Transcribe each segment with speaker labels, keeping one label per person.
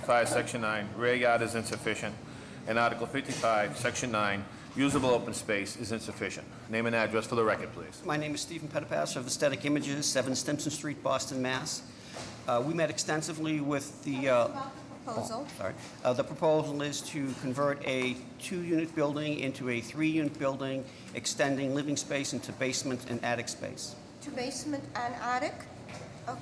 Speaker 1: 55, Section 9, rear yard is insufficient, and Article 55, Section 9, usable open space is insufficient. Name and address for the record, please.
Speaker 2: My name is Stephen Petipas of Aesthetic Images, 7 Stimson Street, Boston, Mass. Uh, We met extensively with the, uh,
Speaker 3: About the proposal,
Speaker 2: sorry, Uh, the proposal is to convert a two-unit building into a three-unit building, extending living space into basement and attic space.
Speaker 3: to basement and attic.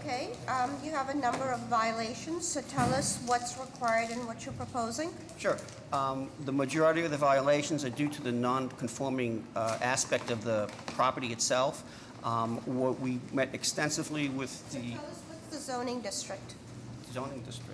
Speaker 3: Okay, um, you have a number of violations, so tell us what's required and what you're proposing.
Speaker 2: Sure. Um, The majority of the violations are due to the non-conforming uh, aspect of the property itself. Um, What we met extensively with the
Speaker 3: Tell us what's the zoning district.
Speaker 2: zoning district.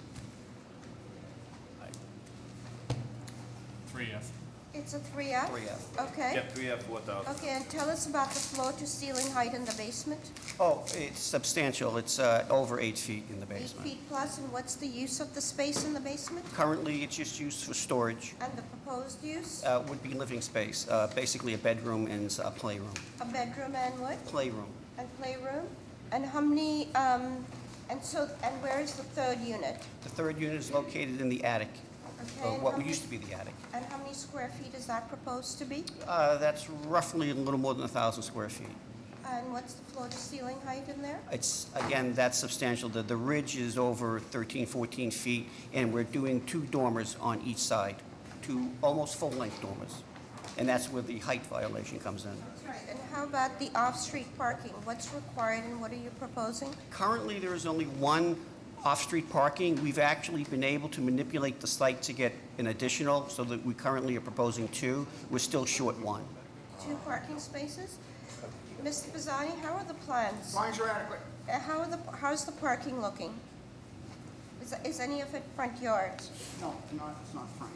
Speaker 4: Three F.
Speaker 3: It's a 3F?
Speaker 2: 3F.
Speaker 3: Okay.
Speaker 1: Yep, 3F, 4,000.
Speaker 3: Okay, and tell us about the floor to ceiling height in the basement.
Speaker 2: Oh, it's substantial. It's uh, over eight feet in the
Speaker 3: Eight
Speaker 2: basement.
Speaker 3: feet plus, and what's the use of the space in the basement?
Speaker 2: Currently, it's just used for storage,
Speaker 3: And the proposed use?
Speaker 2: uh, would be living space, uh, basically a bedroom and a playroom.
Speaker 3: A bedroom and what?
Speaker 2: Playroom.
Speaker 3: And playroom? And how many, um, and so, and where is the third unit?
Speaker 2: The third unit is located in the attic,
Speaker 3: Okay,
Speaker 2: or
Speaker 3: and how
Speaker 2: uh, what
Speaker 3: many-
Speaker 2: used to be the attic.
Speaker 3: And how many square feet is that proposed to be?
Speaker 2: Uh, That's roughly a little more than 1,000 square feet.
Speaker 3: And what's the floor to ceiling height in there?
Speaker 2: It's, again, that's substantial. The the ridge is over 13, 14 feet, and we're doing two dormers on each side, two almost full-length dormers. And that's where the height violation comes in.
Speaker 3: And how about the off-street parking? What's required and what are you proposing?
Speaker 2: Currently, there is only one off-street parking. We've actually been able to manipulate the site to get an additional, so that we currently are proposing two. We're still short one.
Speaker 3: Two parking spaces? Mr. Bizzani, how are the plans?
Speaker 5: Lines are adequate.
Speaker 3: Uh, How are the, how's the parking looking? Is, is any of it front yard?
Speaker 5: No, not, it's not frank.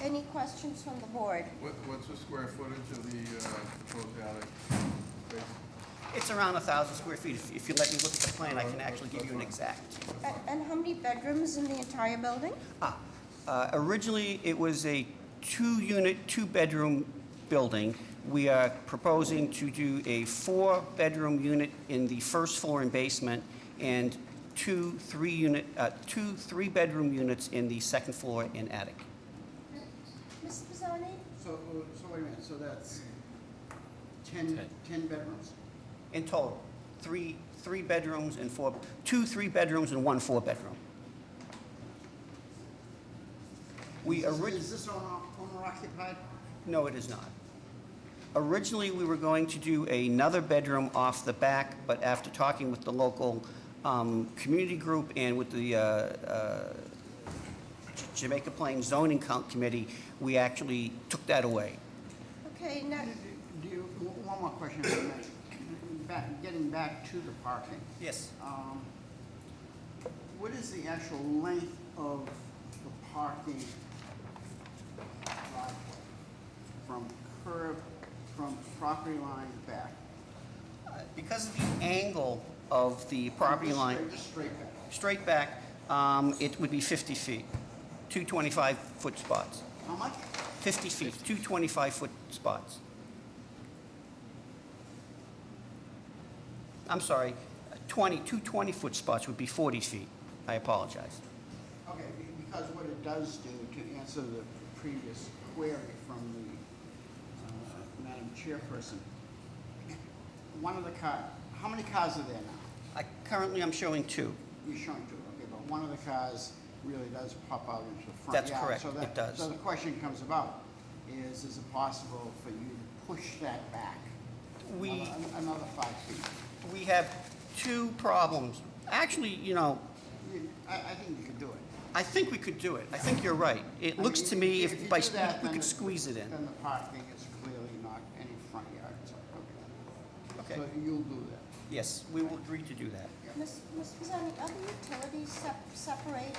Speaker 3: Any questions from the board?
Speaker 6: What, what's the square footage of the uh, proposed attic? space?
Speaker 2: It's around 1,000 square feet. If- If you let me look at the plan, I can actually give you an exact.
Speaker 3: And, and how many bedrooms in the entire building?
Speaker 2: Ah, uh, Originally, it was a two-unit, two-bedroom building. We are proposing to do a four-bedroom unit in the first floor and basement, and two three-unit, uh, two three-bedroom units in the second floor and attic.
Speaker 3: Mr. Bizzani?
Speaker 5: So, uh, so wait a minute, so that's 10, 10 bedrooms?
Speaker 2: In total, three, three bedrooms and four, two three-bedrooms and one four-bedroom. We
Speaker 5: Is-
Speaker 2: originally...
Speaker 5: Is this owner owner occupied?
Speaker 2: No, it is not. Originally, we were going to do another bedroom off the back, but after talking with the local um, community group and with the uh, uh, J- Jamaica Plain Zoning Co- Committee, we actually took that away.
Speaker 3: Okay, now,
Speaker 5: Do you, w- one more question, if I may. Back- getting back to the parking.
Speaker 2: Yes.
Speaker 5: um, What is the actual length of the parking driveway from curb, from property line back?
Speaker 2: Because of the angle of the property
Speaker 5: Just
Speaker 2: line,
Speaker 5: straight- Just straight back.
Speaker 2: straight back, um, it would be 50 feet, two 25-foot spots.
Speaker 5: How much?
Speaker 2: 50 feet, two 25-foot spots. I'm sorry, 20, two 20-foot spots would be 40 feet. I apologize.
Speaker 5: Okay, be- because what it does do, to answer the previous query from the uh, Madam Chairperson, one of the car, how many cars are there now?
Speaker 2: I- Currently, I'm showing two.
Speaker 5: You're showing two, okay, but one of the cars really does pop out into the front.
Speaker 2: That's
Speaker 5: yard,
Speaker 2: correct,
Speaker 5: so
Speaker 2: it
Speaker 5: that-
Speaker 2: does.
Speaker 5: So the question comes about, is, is it possible for you to push that back?
Speaker 2: We-
Speaker 5: another- Another five feet?
Speaker 2: We have two problems. Actually, you know,
Speaker 5: You- I, I think you could do it.
Speaker 2: I think we could do it. I think you're right. It
Speaker 5: I
Speaker 2: looks
Speaker 5: mean,
Speaker 2: to me
Speaker 5: you
Speaker 2: if by,
Speaker 5: do
Speaker 2: sque-
Speaker 5: that,
Speaker 2: we
Speaker 5: then
Speaker 2: could squeeze it in.
Speaker 5: Then the parking is clearly not any front yard, so,
Speaker 2: Okay.
Speaker 5: okay. So you'll do that.
Speaker 2: Yes, we will agree to do that.
Speaker 3: Ms. Ms. Pisani, are the utilities sep- separated,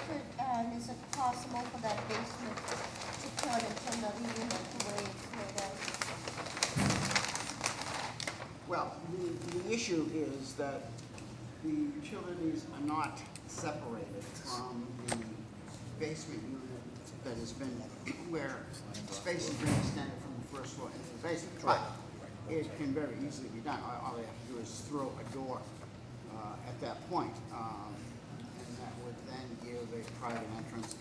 Speaker 3: and is it possible for that basement to turn into another unit the way it's laid out?
Speaker 5: Well, the, the issue is that the utilities are not separated from the basement unit that has been, where space has been extended from the first floor into the basement. Right. It can very easily be done. All all they have to do is throw a door uh, at that point. um, And that would then give a private entrance